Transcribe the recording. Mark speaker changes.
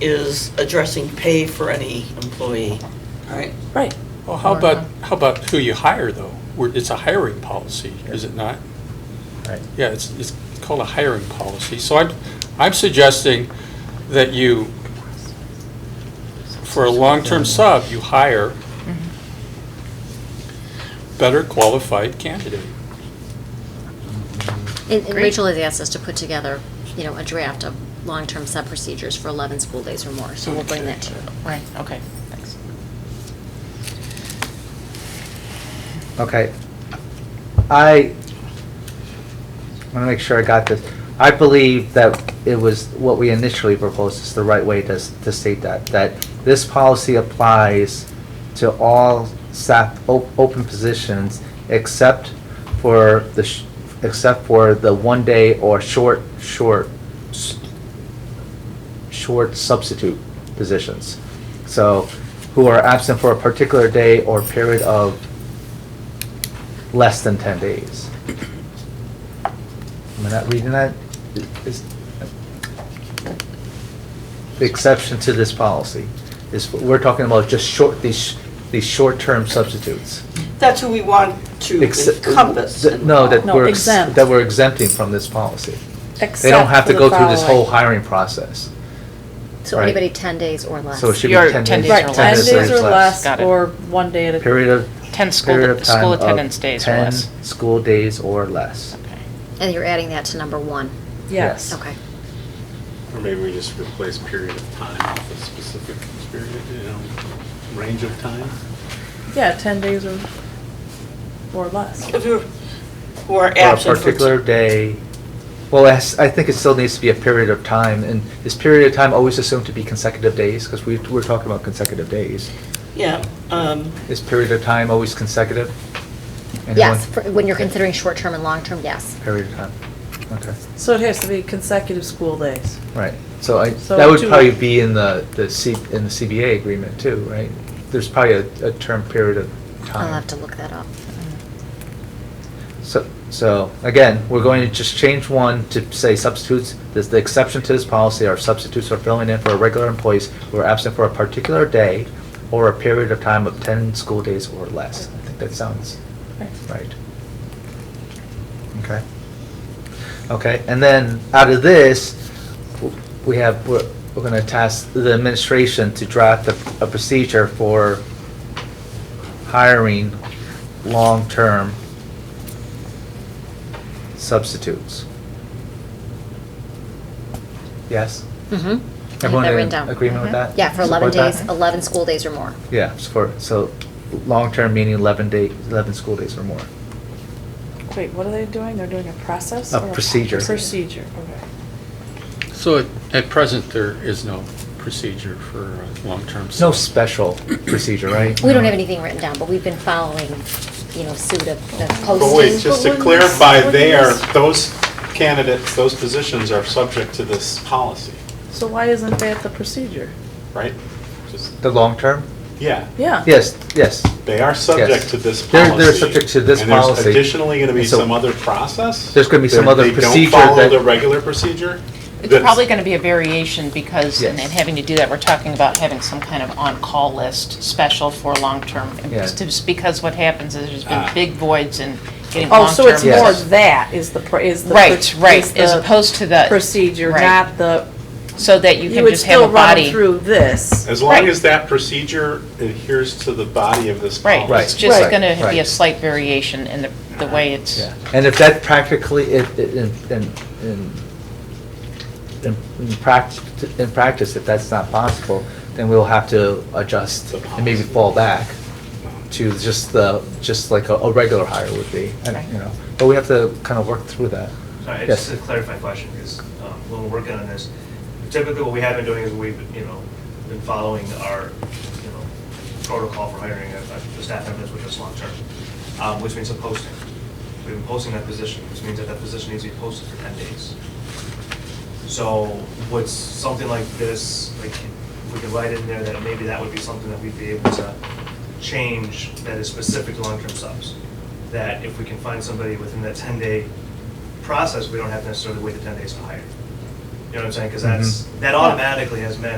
Speaker 1: is addressing pay for any employee, right?
Speaker 2: Right.
Speaker 3: Well,
Speaker 4: uh,
Speaker 3: how about, how about who you hire, though? We're- It's a hiring policy, is it not?
Speaker 4: Right.
Speaker 3: Yeah, it's, it's called a hiring policy. So I'm, I'm suggesting that you, for a long-term sub, you hire better qualified candidate.
Speaker 5: And and Rachel has asked us to put together, you know, a draft of long-term sub procedures for 11 school days or more, so we'll bring that to you.
Speaker 2: Right, okay, thanks.
Speaker 4: Okay. I want to make sure I got this. I believe that it was what we initially proposed is the right way to, s- to state that, that this policy applies to all staff, o- open positions except for the, sh- except for the one day or short, short, s- short substitute positions. So who are absent for a particular day or period of less than 10 days. Am I not reading that? Is- The exception to this policy is, we're talking about just short, these, these short-term substitutes.
Speaker 1: That's who we want to
Speaker 4: Ex-
Speaker 1: encompass.
Speaker 4: th-
Speaker 1: in the
Speaker 4: No, that
Speaker 2: No,
Speaker 4: we're, ex-
Speaker 2: exempt.
Speaker 4: that we're exempting from this policy. They don't have to go through this whole hiring process.
Speaker 5: So
Speaker 4: Right.
Speaker 5: anybody 10 days or less.
Speaker 4: So it should be
Speaker 2: Your
Speaker 4: 10
Speaker 2: 10
Speaker 4: days.
Speaker 2: days or
Speaker 6: Right, 10
Speaker 2: less.
Speaker 6: days or
Speaker 2: less,
Speaker 6: Got it.
Speaker 2: or one day at a.
Speaker 4: Period of.
Speaker 6: 10 school-
Speaker 4: period of
Speaker 6: school
Speaker 4: time of
Speaker 6: attendance days or less.
Speaker 4: 10 school days or less.
Speaker 5: And you're adding that to number one.
Speaker 4: Yes.
Speaker 2: Yes.
Speaker 5: Okay.
Speaker 7: Or maybe we just replace period of time with a specific period, you know, range of time?
Speaker 2: Yeah, 10 days or, or less.
Speaker 1: If you're, who are
Speaker 4: or a
Speaker 1: absent for.
Speaker 4: particular day. Well, I s- I think it still needs to be a period of time, and is period of time always assumed to be consecutive days? Because we, we're talking about consecutive days.
Speaker 1: Yeah, um,
Speaker 4: Is period of time always consecutive? Anyone?
Speaker 5: Yes, for- when you're considering short-term and long-term, yes.
Speaker 4: Period of time, okay,
Speaker 2: So it has to be consecutive school days.
Speaker 4: right. So I,
Speaker 2: So
Speaker 4: that would
Speaker 2: two-
Speaker 4: probably be in the, the C, in the CBA agreement too, right? There's probably a, a term period of time.
Speaker 5: I'll have to look that up.
Speaker 2: Mm-hmm.
Speaker 4: So, so again, we're going to just change one to say substitutes, this, the exception to this policy are substitutes are filling in for regular employees who are absent for a particular day or a period of time of ten school days or less. I think that sounds right. Okay. Okay, and then out of this, w- we have, we're, we're gonna task the administration to draft a, a procedure for hiring long-term substitutes. Yes?
Speaker 5: Mm-hmm.
Speaker 4: Everyone in agreement with that?
Speaker 5: Yeah, for 11
Speaker 4: Support
Speaker 5: days,
Speaker 4: that?
Speaker 5: 11 school days or more.
Speaker 4: Yeah, it's for, so, long-term meaning eleven day, eleven school days or more.
Speaker 2: Wait, what are they doing? They're doing a process?
Speaker 4: A
Speaker 2: or
Speaker 4: procedure.
Speaker 2: Procedure, okay.
Speaker 3: So at- at present, there is no procedure for a long-term
Speaker 4: It's
Speaker 3: sub.
Speaker 4: no special procedure, right?
Speaker 5: We don't have anything written down, but we've been following, you know, suit of the posting.
Speaker 7: But wait, just to
Speaker 6: Oh, But when
Speaker 7: clarify,
Speaker 6: this-
Speaker 7: they
Speaker 6: when
Speaker 7: are,
Speaker 6: this-
Speaker 7: those candidates, those positions are subject to this policy,
Speaker 2: So why isn't that the procedure?
Speaker 7: right? Just
Speaker 4: The long-term?
Speaker 7: Yeah,
Speaker 5: Oh.
Speaker 2: Yeah.
Speaker 4: Yes, yes.
Speaker 7: they are subject
Speaker 4: Yes.
Speaker 7: to this
Speaker 4: They're-
Speaker 7: policy.
Speaker 4: they're subject to this
Speaker 7: And
Speaker 4: policy.
Speaker 7: there's additionally going to be
Speaker 4: And so-
Speaker 7: some other process?
Speaker 4: There's gonna be some
Speaker 7: They-
Speaker 4: other procedure
Speaker 7: They don't follow
Speaker 4: that-
Speaker 7: the regular procedure?
Speaker 6: It's
Speaker 7: That's-
Speaker 6: probably going to be a variation because, and
Speaker 4: Yes.
Speaker 6: and having to do that, we're talking about having some kind of on-call list special for long-term. and
Speaker 4: Yeah.
Speaker 6: Just because what happens is there's
Speaker 7: Ah.
Speaker 6: been big voids in getting long-term.
Speaker 2: Oh, so it's
Speaker 4: Yes.
Speaker 2: more that is the, pro- is the. pro-
Speaker 6: Right,
Speaker 2: is
Speaker 6: right, as
Speaker 2: the
Speaker 6: opposed to the.
Speaker 2: Procedure,
Speaker 6: right.
Speaker 2: not the,
Speaker 6: So that you
Speaker 2: you
Speaker 6: can
Speaker 2: would
Speaker 6: just have
Speaker 2: still
Speaker 6: a
Speaker 2: run them
Speaker 6: body.
Speaker 2: through this.
Speaker 7: As long
Speaker 6: Right.
Speaker 7: as that procedure adheres to the body of this policy.
Speaker 6: Right, it's
Speaker 4: Right,
Speaker 6: just
Speaker 4: right,
Speaker 6: going to be a
Speaker 4: right.
Speaker 6: slight variation in the, the way it's.
Speaker 4: Yeah, and if that practically, if, in, in, in, in- in practice, in practice, if that's not possible, then we'll have to adjust
Speaker 7: The
Speaker 4: and maybe
Speaker 7: policy.
Speaker 4: fall back to just the, just like a, a regular hire would be, and,
Speaker 6: Right.
Speaker 4: you know, but we have to kind of work through that.
Speaker 8: Sorry,
Speaker 4: Yes.
Speaker 8: just a clarifying question, because when we're working on this, typically what we have been doing is we've, you know, been following our, you know, protocol for hiring a a staff members, which is long-term, um, which means a posting. We've been posting that position, which means that that position needs to be posted for 10 days. So would something like this, like, we could write in there that maybe that would be something that we'd be able to change that is specific to long-term subs? That if we can find somebody within that 10-day process, we don't have to necessarily wait the 10 days to hire. You know what I'm saying? Because that's, that automatically has meant